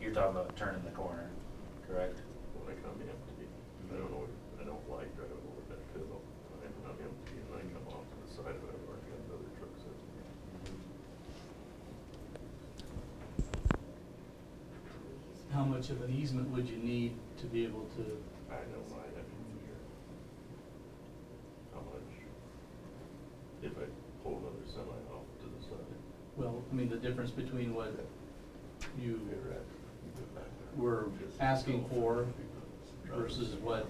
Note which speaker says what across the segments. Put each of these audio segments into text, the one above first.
Speaker 1: You're talking about turning the corner, correct?
Speaker 2: when I come empty. I don't know, I don't like driving over that hill. I'm, I'm empty and I come off to the side of it, where I got the other trucks in.
Speaker 3: How much of an easement would you need to be able to,
Speaker 2: I don't mind having to hear. How much? If I pull another semi off to the side.
Speaker 3: well, I mean, the difference between what you
Speaker 2: You're at- you go back there.
Speaker 3: were
Speaker 2: Just
Speaker 3: asking
Speaker 2: go.
Speaker 3: for versus what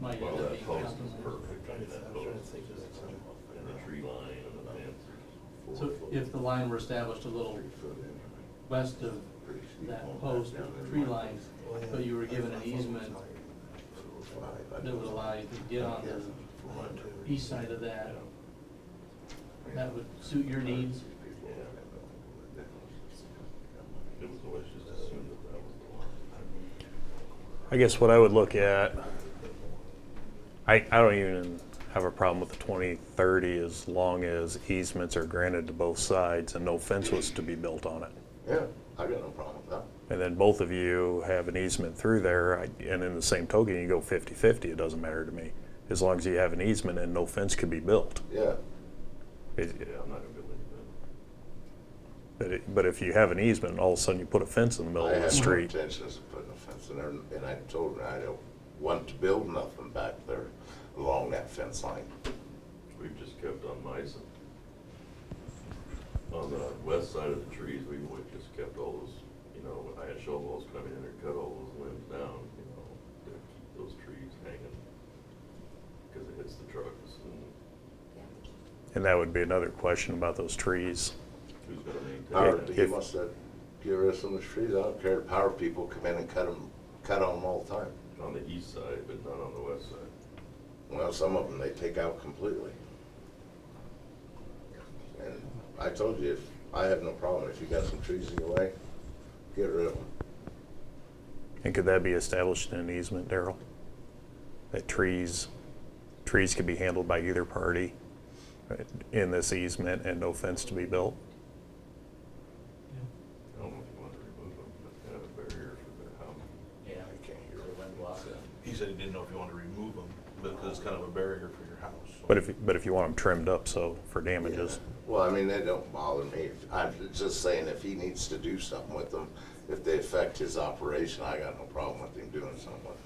Speaker 3: might end
Speaker 2: Well,
Speaker 3: up
Speaker 2: that
Speaker 3: being
Speaker 2: post is
Speaker 3: customized.
Speaker 2: perfect, I mean, that
Speaker 4: I'm trying to
Speaker 2: post
Speaker 4: think of
Speaker 2: is-
Speaker 4: something.
Speaker 2: and the tree line and the fence. is four
Speaker 3: So
Speaker 2: foot.
Speaker 3: if the line were established a little west of that post tree line, but you were given an easement that would allow you to get on the east side of
Speaker 2: Yeah,
Speaker 3: that, that would suit your needs?
Speaker 2: it was always just assumed that that was the line.
Speaker 5: I guess what I would look at, I, I don't even have a problem with the twenty thirty as long as easements are granted to both sides and no fence was to be built on it.
Speaker 4: Yeah, I got no problem with that.
Speaker 5: And then both of you have an easement through there, I- and in the same token, you go 50-50, it doesn't matter to me. As long as you have an easement and no fence could be built.
Speaker 4: Yeah,
Speaker 5: It-
Speaker 2: Yeah, I'm not gonna build anything.
Speaker 5: But, it- but if you have an easement, all of a sudden you put a fence in the middle
Speaker 4: I
Speaker 5: of the
Speaker 4: have no
Speaker 5: street.
Speaker 4: intentions of putting a fence in there, and I told her I don't want to build nothing back there along that fence line.
Speaker 2: We've just kept on mice. On the west side of the trees, we would just kept all those, you know, I had shovels coming in and cut all those limbs down, you know, to keep those trees hanging. Cause it hits the trucks and
Speaker 5: And that would be another question about those trees.
Speaker 2: who's gonna maintain.
Speaker 4: Power,
Speaker 2: that?
Speaker 4: he must have, get rid of some of the trees, I don't care, power people come in and cut them, cut on them all the time.
Speaker 2: On the east side, but not on the west side.
Speaker 4: Well, some of them they take out completely. And I told you, if, I have no problem, if you got some trees in your way, get rid of them.
Speaker 5: And could that be established in an easement, Daryl? That trees, trees could be handled by either party right, in this easement and no fence to be built?
Speaker 2: I don't know if you want to remove them, but have a barrier for their house.
Speaker 1: Yeah.
Speaker 4: I can't hear.
Speaker 1: So wind block it.
Speaker 6: He said he didn't know if you wanted to remove them, because it's kind of a barrier for your house. so-
Speaker 5: But if, but if you want them trimmed up, so for damages.
Speaker 4: Well, I mean, they don't bother me. I'm just saying if he needs to do something with them, if they affect his operation, I got no problem with him doing something with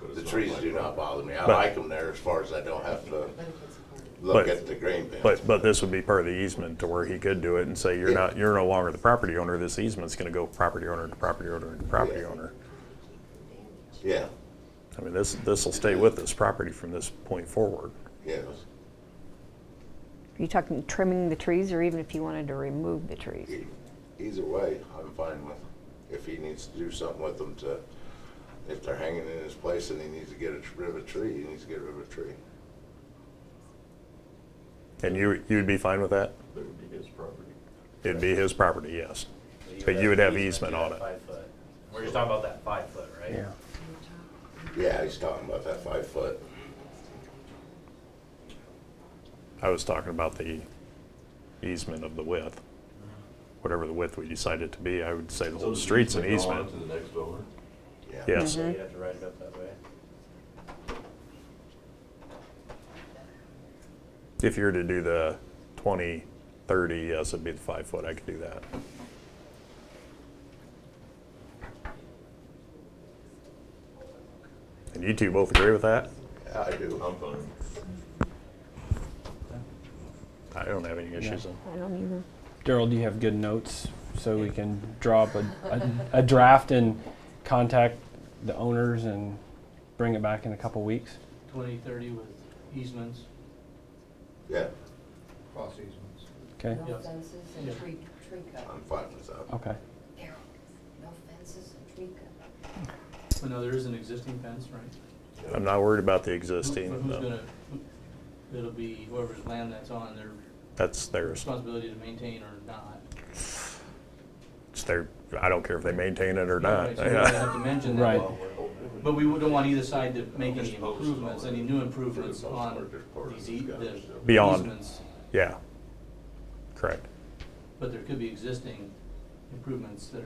Speaker 2: But
Speaker 4: them.
Speaker 2: it's
Speaker 4: The
Speaker 2: not
Speaker 4: trees
Speaker 2: like
Speaker 4: do
Speaker 2: that.
Speaker 4: not bother me. I
Speaker 5: But-
Speaker 4: like them there as far as I don't have to
Speaker 5: But-
Speaker 4: look at the grain bins.
Speaker 5: But, but this would be part of the easement to where he could do it and say, you're not, you're no longer the property owner, this easement's gonna go property owner to property owner to property
Speaker 4: Yeah.
Speaker 5: owner.
Speaker 4: Yeah,
Speaker 5: I mean, this, this'll stay with this property from this point forward.
Speaker 4: yes.
Speaker 7: Are you talking trimming the trees or even if you wanted to remove the trees?
Speaker 4: E- Either way, I'm fine with, if he needs to do something with them to, if they're hanging in his place and he needs to get a- rid of a tree, he needs to get rid of a tree.
Speaker 5: And you, you'd be fine with that?
Speaker 2: That would be his property.
Speaker 5: It'd be his property, yes. But you would have easement
Speaker 1: to
Speaker 5: on
Speaker 1: that
Speaker 5: it.
Speaker 1: Five foot. We're just talking about that five foot, right? Yeah.
Speaker 4: Yeah, he's talking about that five foot.
Speaker 5: I was talking about the easement of the width. Whatever the width we decide it to be, I would say the whole street's an easement.
Speaker 2: To the next owner.
Speaker 5: Yes,
Speaker 1: So you have to write it up that way.
Speaker 5: if you're to do the 20, 30, yes, it'd be the five foot, I could do that. And you two both agree with that?
Speaker 4: Yeah, I do.
Speaker 2: I'm fine.
Speaker 5: I don't have any issues on
Speaker 7: I don't either.
Speaker 8: Daryl, do you have good notes so we can draw up a, a, a draft and contact the owners and bring it back in a couple weeks?
Speaker 3: Twenty, thirty with easements?
Speaker 4: Yeah,
Speaker 6: Cross easements.
Speaker 8: Okay.
Speaker 3: Yeah.
Speaker 9: No fences
Speaker 3: Yeah.
Speaker 9: and tree, tree cut.
Speaker 4: I'm fine with that.
Speaker 8: Okay.
Speaker 9: Carol, no fences and tree cut.
Speaker 3: Well, no, there is an existing fence, right?
Speaker 5: I'm not worried about the
Speaker 3: Who-
Speaker 5: existing,
Speaker 3: Who's
Speaker 5: though.
Speaker 3: gonna, who- it'll be whoever's land that's on, their
Speaker 5: That's theirs.
Speaker 3: responsibility to maintain or not.
Speaker 5: It's their, I don't care if they maintain it or
Speaker 3: Right,
Speaker 5: not.
Speaker 3: So we would have to mention that.
Speaker 8: Right.
Speaker 3: But we don't want either side to make any improvements, any new improvements on these ea- the
Speaker 5: Beyond.
Speaker 3: easements.
Speaker 5: Yeah, correct.
Speaker 3: But there could be existing improvements that are